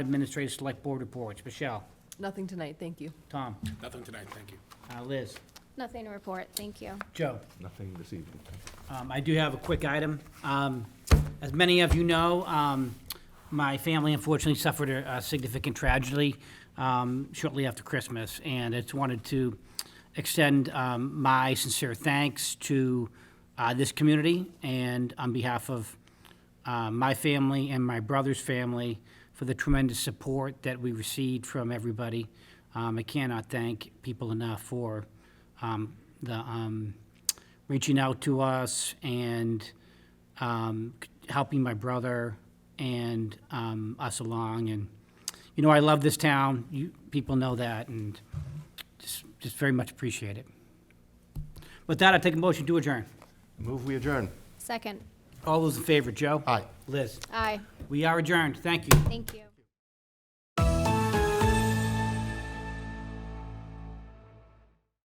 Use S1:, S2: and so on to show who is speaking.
S1: Administrative Select Board reports. Michelle,
S2: Nothing tonight, thank you.
S1: Tom,
S3: Nothing tonight, thank you.
S1: uh, Liz,
S4: Nothing to report, thank you.
S1: Joe.
S5: Nothing this evening.
S1: Um, I do have a quick item. Um, As many of you know, um, my family unfortunately suffered a a significant tragedy um, shortly after Christmas, and I just wanted to extend um, my sincere thanks to uh, this community and on behalf of uh, my family and my brother's family for the tremendous support that we received from everybody. Um, I cannot thank people enough for um, the um, reaching out to us and um, c- helping my brother and um, us along. And you know, I love this town. You people know that, and just just very much appreciate it. With that, I take a motion to adjourn.
S5: Move, we adjourn.
S4: Second,
S1: All those in favor, Joe?
S5: Aye.
S1: Liz,
S4: aye,
S1: we are adjourned. Thank you.
S4: thank you.